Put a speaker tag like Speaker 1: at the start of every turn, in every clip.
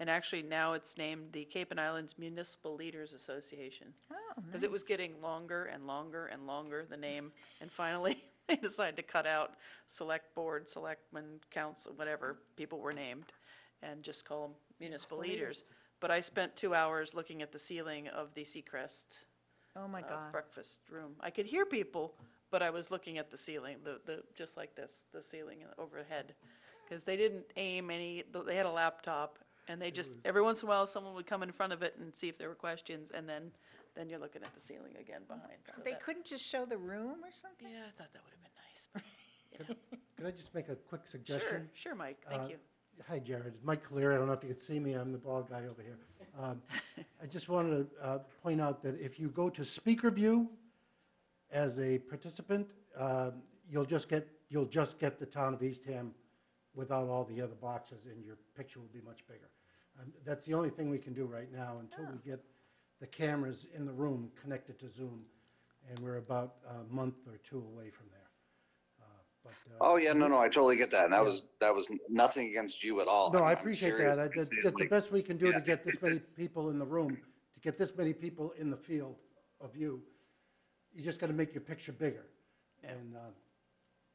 Speaker 1: And actually now it's named the Cape and Islands Municipal Leaders Association.
Speaker 2: Oh,
Speaker 1: Because it was
Speaker 2: nice.
Speaker 1: getting longer and longer and longer, the name. And finally, they decided to cut out select board, selectmen, council, whatever people were named, and just call them municipal leaders. But I spent two hours looking at the ceiling of the Seacrest
Speaker 2: Oh, my
Speaker 1: uh,
Speaker 2: God.
Speaker 1: breakfast room. I could hear people, but I was looking at the ceiling, the, the, just like this, the ceiling overhead. Because they didn't aim any, th- they had a laptop, and they just, every once in a while, someone would come in front of it and see if there were questions, and then, then you're looking at the ceiling again behind. so
Speaker 2: They
Speaker 1: that-
Speaker 2: couldn't just show the room or something?
Speaker 1: Yeah, I thought that would have been nice. but,
Speaker 3: Could I just make a quick
Speaker 1: you know. Sure,
Speaker 3: suggestion?
Speaker 1: sure, Mike,
Speaker 3: Uh,
Speaker 1: thank you.
Speaker 3: Hi, Jared. Mike Clear. I don't know if you can see me. I'm the bald guy over here. Um, I just wanted to uh, point out that if you go to speaker view as a participant, um, you'll just get, you'll just get the town of Eastham without all the other boxes, and your picture will be much bigger. Um, That's the only thing we can do right now until we get the cameras in the room connected to Zoom, and we're about a month or two away from there. Uh, but, uh,
Speaker 4: Oh, yeah, no, no, I totally get that. And that was, that was nothing against you at all.
Speaker 3: No,
Speaker 4: Oh, I'm-
Speaker 3: I
Speaker 4: I'm
Speaker 3: appreciate
Speaker 4: serious
Speaker 3: that. I-
Speaker 4: when I
Speaker 3: That's
Speaker 4: say it
Speaker 3: that's the
Speaker 4: like-
Speaker 3: best we can do to
Speaker 4: yeah.
Speaker 3: get this many people in the room, to get this many people in the field of you. You just got to make your picture bigger. And, uh,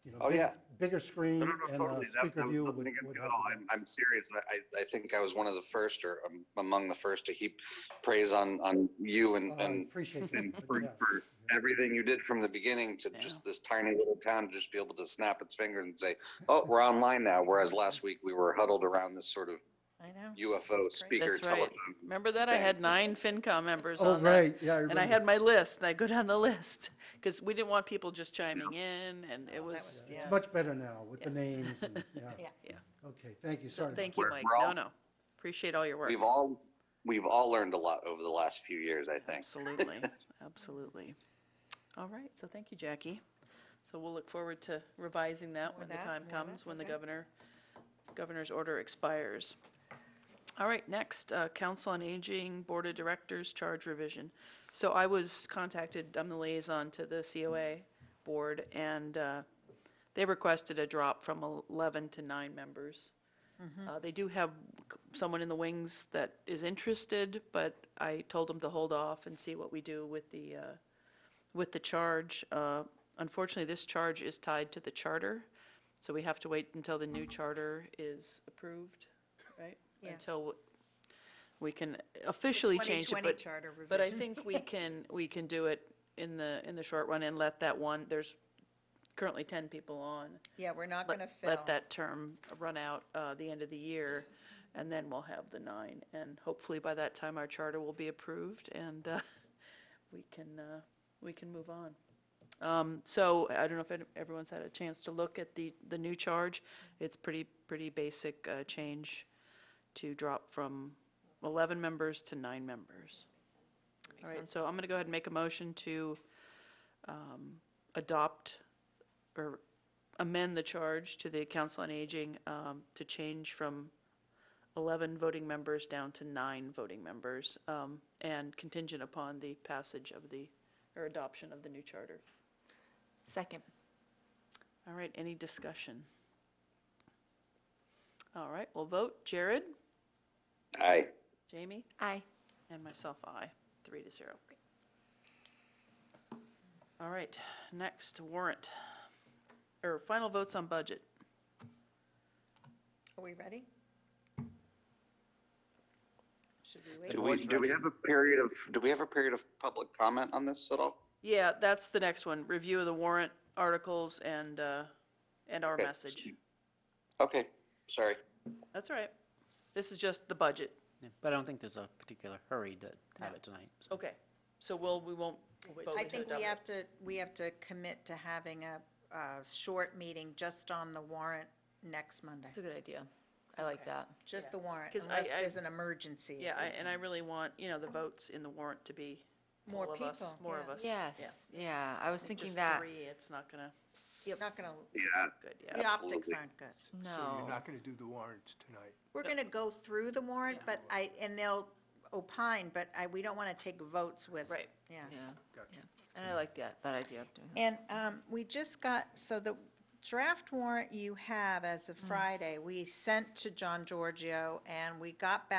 Speaker 3: you know.
Speaker 4: Oh,
Speaker 3: big-
Speaker 4: yeah.
Speaker 3: Bigger screen
Speaker 4: No, no, no,
Speaker 3: and uh,
Speaker 4: totally. That- that
Speaker 3: speaker
Speaker 4: was
Speaker 3: view would
Speaker 4: nothing
Speaker 3: would
Speaker 4: against
Speaker 3: help.
Speaker 4: you at all.
Speaker 3: with
Speaker 4: I'm,
Speaker 3: that.
Speaker 4: I'm serious. I, I- I think I was one of the first or um, among the first to heap praise on, on you and,
Speaker 3: Oh, I
Speaker 4: and
Speaker 3: Appreciate
Speaker 4: and
Speaker 3: that.
Speaker 4: for,
Speaker 3: Yeah.
Speaker 4: for everything you did from the beginning to
Speaker 1: Yeah.
Speaker 4: just this tiny little town to just be able to snap its fingers and say, oh, we're online now. Whereas last week we were huddled around this sort of
Speaker 2: I know.
Speaker 4: UFO
Speaker 2: That's great.
Speaker 4: speaker
Speaker 1: That's right.
Speaker 4: telephone.
Speaker 1: Remember that? I had
Speaker 4: Thanks.
Speaker 1: nine FinCom members
Speaker 3: Oh,
Speaker 1: on that.
Speaker 3: right, yeah.
Speaker 1: And I
Speaker 3: remember.
Speaker 1: had my list, and I go down the list, because we didn't want people just chiming in, and it
Speaker 2: Oh, was-
Speaker 1: was,
Speaker 3: Yeah,
Speaker 2: yeah.
Speaker 3: It's much better now with the
Speaker 1: uh, Yeah.
Speaker 3: names and, yeah.
Speaker 2: Yeah.
Speaker 3: Okay, thank you.
Speaker 1: so
Speaker 3: Sorry.
Speaker 1: thank
Speaker 3: about
Speaker 1: you, Mike.
Speaker 4: We're- we're
Speaker 1: No,
Speaker 4: all-
Speaker 1: no, appreciate all your work.
Speaker 4: We've all, we've all learned a lot over the last few years, I think.
Speaker 1: Absolutely, absolutely. All right, so thank you, Jackie. So we'll look forward to revising that
Speaker 2: More
Speaker 1: when the
Speaker 2: that,
Speaker 1: time
Speaker 2: more that,
Speaker 1: comes, when the
Speaker 2: okay.
Speaker 1: governor, governor's order expires. All right, next, uh, Council on Aging Board of Directors Charge Revision. So I was contacted, I'm the liaison to the COA Board, and uh, they requested a drop from 11 to nine members. Uh, They do have c- someone in the wings that is interested, but I told them to hold off and see what we do with the, uh, with the charge. Uh, Unfortunately, this charge is tied to the charter, so we have to wait until the new charter is approved, right?
Speaker 2: Yes.
Speaker 1: Until we can officially change it,
Speaker 2: 2020
Speaker 1: but.
Speaker 2: charter
Speaker 1: But I
Speaker 2: revision.
Speaker 1: think we can, we can do it in the, in the short run and let that one, there's currently 10 people on
Speaker 2: Yeah, we're not
Speaker 1: let-
Speaker 2: going to fill.
Speaker 1: Let that term run out uh, the end of the year, and then we'll have the nine. And hopefully by that time, our charter will be approved, and uh, we can, uh, we can move on. Um, So I don't know if any- everyone's had a chance to look at the, the new charge. It's pretty, pretty basic uh, change to drop from 11 members to nine members. All right, so I'm going to go ahead and make a motion to um, adopt or amend the charge to the Council on Aging um, to change from 11 voting members down to nine voting members, um, and contingent upon the passage of the, or adoption of the new charter.
Speaker 5: Second.
Speaker 1: All right, any discussion? All right, we'll vote. Jared,
Speaker 4: Aye.
Speaker 1: Jamie,
Speaker 5: Aye.
Speaker 1: and myself, aye, three to zero. All right, next warrant, or final votes on budget.
Speaker 2: Are we ready? Should we wait?
Speaker 4: Do we, do we have a period of, do we have a period of public comment on this at all?
Speaker 1: Yeah, that's the next one, review of the warrant articles and, uh, and our
Speaker 4: Okay.
Speaker 1: message.
Speaker 4: Okay, sorry.
Speaker 1: That's all right. This is just the budget.
Speaker 6: Yeah, But I don't think there's a particular hurry to have
Speaker 2: No.
Speaker 6: it tonight. so.
Speaker 1: Okay, so we'll, we won't vote
Speaker 2: I
Speaker 1: to
Speaker 2: think
Speaker 1: adopt
Speaker 2: we
Speaker 1: it.
Speaker 2: have to, we have to commit to having a, a short meeting just on the warrant next Monday.
Speaker 5: That's a good idea. I like that.
Speaker 2: Just the warrant,
Speaker 1: 'Cause I-
Speaker 2: unless
Speaker 1: I-
Speaker 2: there's an emergency. or
Speaker 1: Yeah, I-
Speaker 2: something.
Speaker 1: and I really want, you know, the votes in the warrant to be
Speaker 2: More
Speaker 1: all of us,
Speaker 2: people,
Speaker 1: more
Speaker 2: yeah.
Speaker 1: of us. Yeah.
Speaker 5: Yes, yeah, I was thinking
Speaker 1: Just
Speaker 5: that.
Speaker 1: three, it's not gonna,
Speaker 2: Not gonna,
Speaker 4: Yeah.
Speaker 1: good,
Speaker 2: the
Speaker 1: yeah.
Speaker 2: optics
Speaker 4: Absolutely.
Speaker 2: aren't good.
Speaker 7: So you're
Speaker 5: No.
Speaker 7: not going to do the warrants tonight?
Speaker 2: We're gonna go through the warrant, but I, and they'll opine, but I, we don't wanna take votes with.
Speaker 1: Right.
Speaker 2: Yeah.
Speaker 5: Yeah,
Speaker 7: Gotcha.
Speaker 5: yeah. And I like that, that idea of doing that.
Speaker 2: And um, we just got, so the draft warrant you have as of Friday, we sent to John Giorgio, and we got back